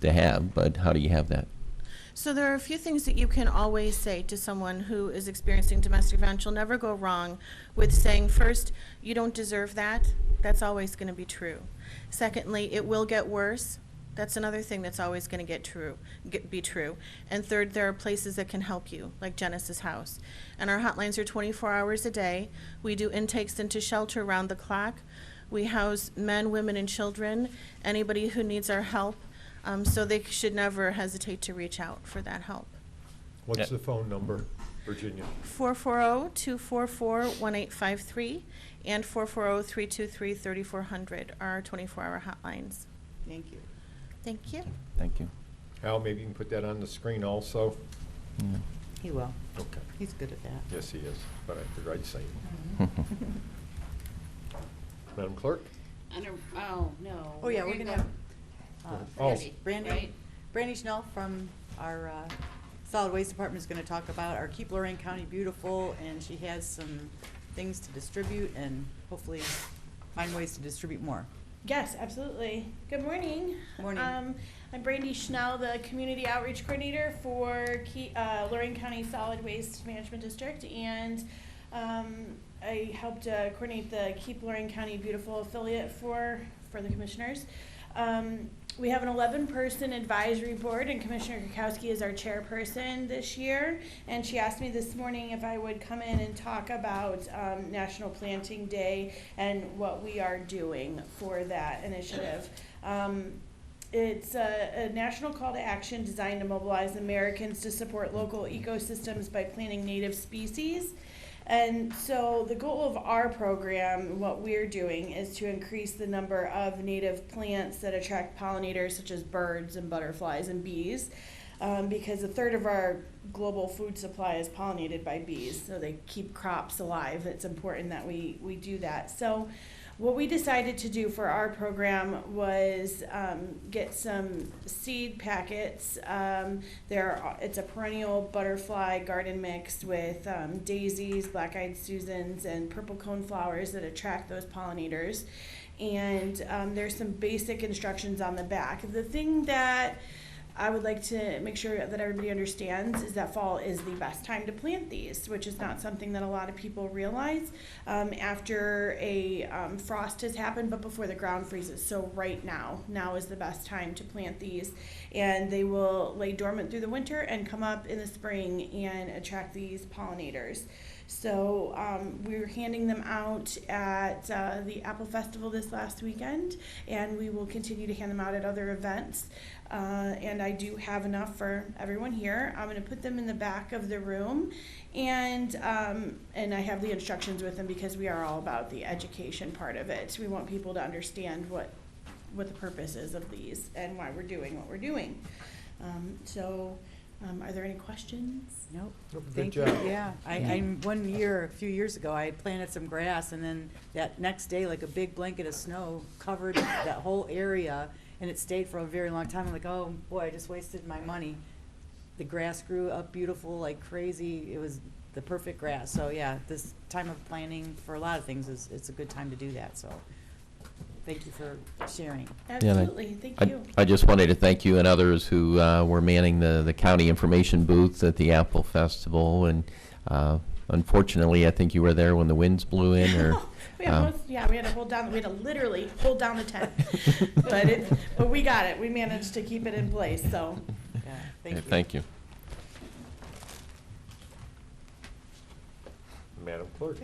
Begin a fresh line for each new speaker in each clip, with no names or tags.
to have, but how do you have that?
So there are a few things that you can always say to someone who is experiencing domestic violence. You'll never go wrong with saying, first, you don't deserve that. That's always going to be true. Secondly, it will get worse. That's another thing that's always going to get true, get, be true. And third, there are places that can help you, like Genesis House. And our hotlines are 24 hours a day. We do intakes into shelter around the clock. We house men, women, and children. Anybody who needs our help, um, so they should never hesitate to reach out for that help.
What's
Yeah.
the phone number, Virginia?
oh, 440-244-1853 and oh, 440-323-3400 are our 24-hour hotlines.
Thank you.
Thank you.
Thank you.
Al, maybe you can put that on the screen also?
He will.
Okay.
He's good at that.
Yes, he is, but I figured I'd say it. Madam Clerk?
Under, oh, no.
Oh, yeah, we're gonna have uh,
Oh.
Brandy- Brandy,
Right.
Brandy Schnell from our uh, Solid Waste Department is gonna talk about our Keep Lorraine County Beautiful, and she has some things to distribute and hopefully find ways to distribute more.
Yes, absolutely. Good morning.
Morning.
Um, I'm Brandy Schnell, the Community Outreach Coordinator for Ke- uh, Lorraine County Solid Waste Management District, and um, I helped uh, coordinate the Keep Lorraine County Beautiful affiliate for, for the commissioners. Um, we have an 11 person advisory board, and Commissioner Kukowski is our chairperson this year. And she asked me this morning if I would come in and talk about um, National Planting Day and what we are doing for that initiative. Um, it's a, a national call to action designed to mobilize Americans to support local ecosystems by planting native species. And so the goal of our program, what we're doing, is to increase the number of native plants that attract pollinators such as birds and butterflies and bees. Um, because a third of our global food supply is pollinated by bees, so they keep crops alive. It's important that we, we do that. So, what we decided to do for our program was um, get some seed packets. Um, there, are, it's a perennial butterfly garden mix with um, daisies, black-eyed susans, and purple cone flowers that attract those pollinators. And um, there's some basic instructions on the back. The thing that I would like to make sure that everybody understands is that fall is the best time to plant these, which is not something that a lot of people realize. Um, after a um, frost has happened, but before the ground freezes. So, right now, now is the best time to plant these. And they will lay dormant through the winter and come up in the spring and attract these pollinators. So um, we are handing them out at uh, the Apple Festival this last weekend, and we will continue to hand them out at other events. Uh, and I do have enough for everyone here. I'm going to put them in the back of the room, and um, and I have the instructions with them because we are all about the education part of it. We want people to understand what what the purpose is of these and why we're doing what we're doing. Um, so, um, are there any questions?
Nope.
Nope, good
Thank you.
job.
Yeah, I, I, one year, a few years ago, I had planted some grass, and then that next day, like a big blanket of snow covered that whole area, and it stayed for a very long time. I'm like, oh, boy, I just wasted my money. The grass grew up beautiful like crazy. It was the perfect grass. So, yeah, this time of planting for a lot of things is, it's a good time to do that, so thank you for sharing.
Yeah, and I-
Absolutely, thank
I-
you.
I just wanted to thank you and others who uh, were manning the, the county information booth at the Apple Festival. And uh, unfortunately, I think you were there when the winds blew in or.
Oh, We
um,
almost, yeah, we had to hold down, we had to literally hold down the tent. But it, but we got it, we managed to keep it in place, so.
Yeah,
yeah,
thank you.
Thank you.
Madam Clerk?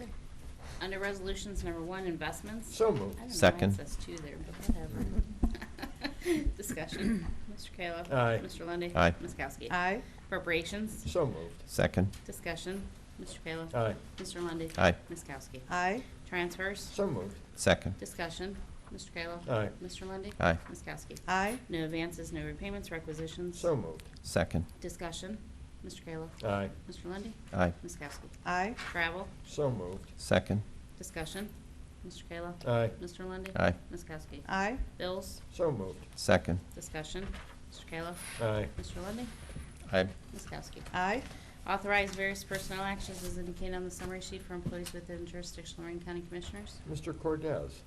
Under resolutions, number one, investments.
So moved.
I don't know why it
Second.
says two there, but whatever. Discussion. Mr. Kayla.
Aye.
Mr. Lundy.
Aye.
Ms. Kowski.
Aye,
Appropriations.
So moved.
Second,
Discussion. Mr. Kayla.
Aye.
Mr. Lundy.
Aye.
Ms. Kowski.
aye,
Transfers.
So moved.
second,
Discussion. Mr. Kayla.
Aye.
Mr. Lundy.
Aye.
Ms. Kowski.
aye,
No advances, no repayments, requisitions.
So moved.
second,
Discussion. Mr. Kayla.
Aye.
Mr. Lundy.
aye,
Ms. Kowski.
aye,
Travel.
So moved.
second,
Discussion. Mr. Kayla.
Aye.
Mr. Lundy.
Aye.
Ms. Kowski.
aye,
Bills.
So moved.
second,
Discussion. Mr. Kayla.
Aye.
Mr. Lundy,
aye,
Ms. Kowski.
aye,
Authorize various personnel actions as indicated on the summary sheet for employees within jurisdiction of Lorraine County Commissioners.
Mr. Cordez?